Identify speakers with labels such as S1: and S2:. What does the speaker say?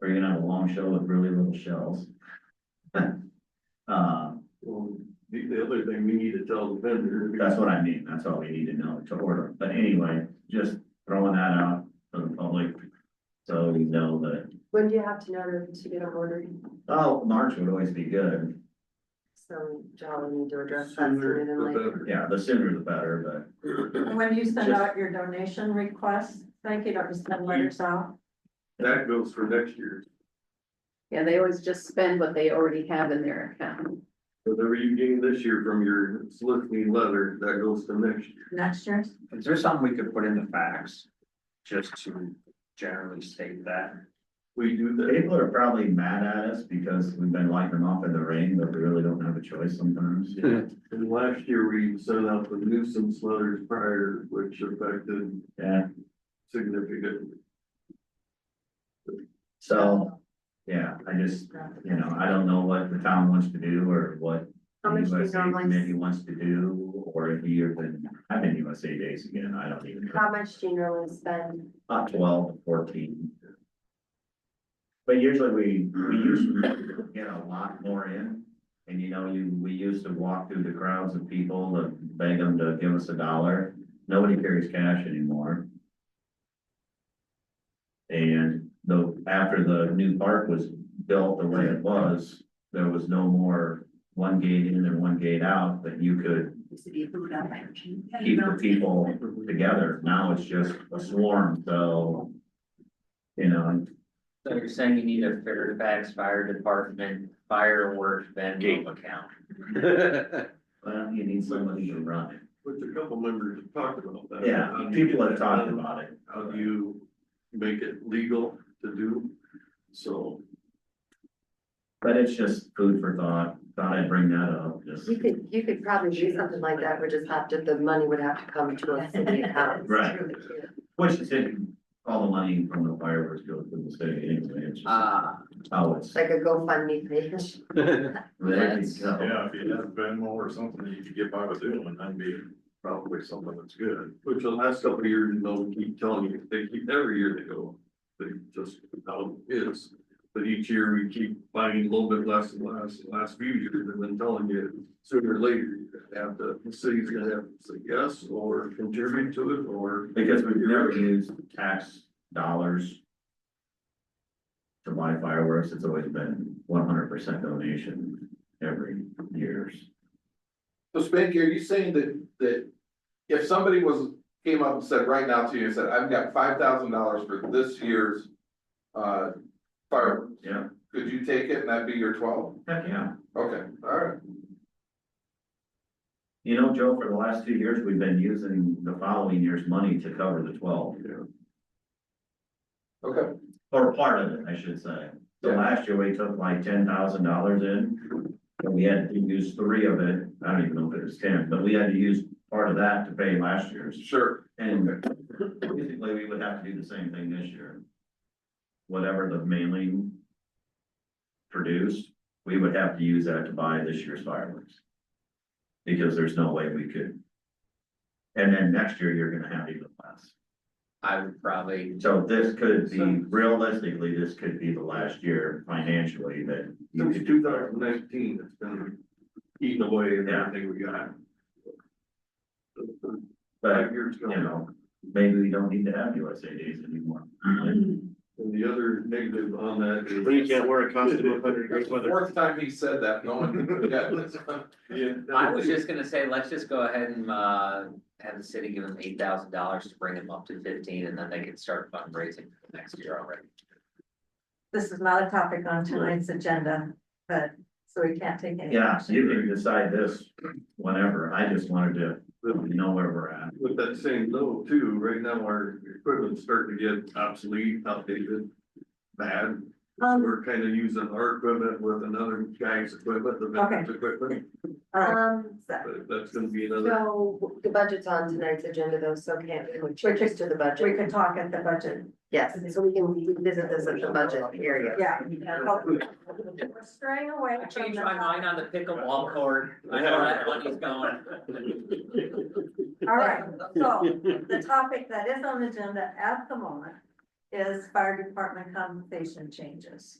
S1: Or you're gonna have a long shell with really little shells. Uh,
S2: Well, the, the other thing we need to tell the vendor.
S1: that's what I mean, that's all we need to know to order, but anyway, just throwing that out to the public. So you know that,
S3: When do you have to know to get an order?
S1: oh, March would always be good,
S3: So y'all need to address that
S2: Sooner the
S3: sooner than later.
S2: better.
S1: yeah, the sooner the better,
S4: When you send
S1: Just-
S4: out your donation requests, thank you, don't just send letters out.
S2: That goes for next year,
S5: Yeah, they always just spend what they already have in their account.
S2: whatever you gain this year from your soliciting letter, that goes to next year.
S4: Next year's,
S6: Is there something we could put in the facts, just to generally state that?
S2: We do
S1: but
S2: that,
S1: people are probably mad at us because we've been lighting them off in the rain, but we really don't have a choice sometimes.
S2: and last year we sent out the nuisance letters prior, which affected
S1: Yeah,
S2: significantly.
S1: so, yeah, I just, you know, I don't know what the town wants to do or what
S3: How much do you
S1: USA committee
S3: normally,
S1: wants to do, or if you're been having USA days again, I don't even know,
S3: how much do you normally spend?
S1: about twelve to fourteen. But usually we, we usually get a lot more in, and you know, you, we used to walk through the crowds of people to beg them to give us a dollar. Nobody carries cash anymore. And though, after the new park was built the way it was, there was no more one gate in and one gate out, that you could keep the people together. Now it's just a swarm, so. You know,
S7: So you're saying you need a Fairfax Fire Department fireworks Venmo account?
S1: well, you need somebody to run it.
S2: Which a couple members have talked about that.
S1: Yeah, people have talked about it.
S2: How do you make it legal to do? So,
S1: But it's just food for thought. Thought I'd bring that up, just,
S3: You could, you could probably do something like that, would just have to, the money would have to come to us in the account.
S1: right. Which is it, all the money from the fireworks goes to the city anyway. It's just
S7: Ah,
S1: how it's.
S3: Like a GoFundMe page.
S7: that's-
S1: Yeah.
S8: Yeah, if you have Venmo or something that you could get by with it, and that'd be probably something that's good.
S2: which the last couple of years, they'll keep telling you, they keep, every year they go, they just, how it is. But each year we keep finding a little bit less and less, The last few years, and then telling you sooner or later, you're gonna have to, the city's gonna have to say yes or contribute to it or.
S1: Because we've never used tax dollars. To buy fireworks, it's always been one hundred percent donation every years.
S9: So Spanky, are you saying that, that if somebody was, came up and said right now to you and said, I've got five thousand dollars for this year's. Uh, fireworks,
S1: Yeah,
S9: could you take it and that'd be your twelve?
S1: heck, yeah.
S9: Okay, alright,
S1: You know, Joe, for the last two years, we've been using the following year's money to cover the twelve,
S9: okay,
S1: or part of it, I should say. So
S9: Yeah.
S1: last year, we took like ten thousand dollars in, and we had to use three of it, I don't even know if it was ten, but we had to use part of that to pay last year's.
S9: sure,
S1: And basically, we would have to do the same thing this year. Whatever the mailing produced, we would have to use that to buy this year's fireworks. Because there's no way we could. And then next year, you're gonna have even less.
S7: I would probably,
S1: So this could be, realistically, this could be the last year financially that. you could-
S2: Since two thousand nineteen, it's been eating away at
S1: Yeah.
S2: everything we got.
S1: But,
S2: Five years ago.
S1: you know, maybe we don't need to have USA days anymore.
S3: Mm-hmm.
S2: And the other negative on that is.
S8: wear a
S2: costume in
S8: hundred
S9: that's the fourth time he said that, no one, yeah, that's-
S2: Yeah.
S7: I was just gonna say, let's just go ahead and, uh, have the city give them eight thousand dollars to bring them up to fifteen, and then they can start fundraising for the next year already.
S4: this is not a topic on tonight's agenda, but, so we can't take any.
S1: Yeah, so you can decide this whenever. I just wanted to, you know where we're at.
S2: With that same note too, right now our equipment's starting to get obsolete, outdated, bad.
S4: Um,
S2: We're kind of using our equipment with another guy's equipment, the vendor's equipment,
S4: all right.
S3: Um,
S2: but that's gonna be another.
S3: so the budget's on tonight's agenda though, so can't we
S4: We
S3: change
S4: could-
S3: to the
S4: We
S3: budget?
S4: could talk at the budget.
S3: Yes, so we can revisit this at the budget area.
S4: Yeah. We're straying away
S7: I
S4: from
S7: changed
S4: the.
S7: my mind on the pickleball court, I know where that money's going.
S4: All right, so the topic that is on the agenda at the moment is fire department compensation changes.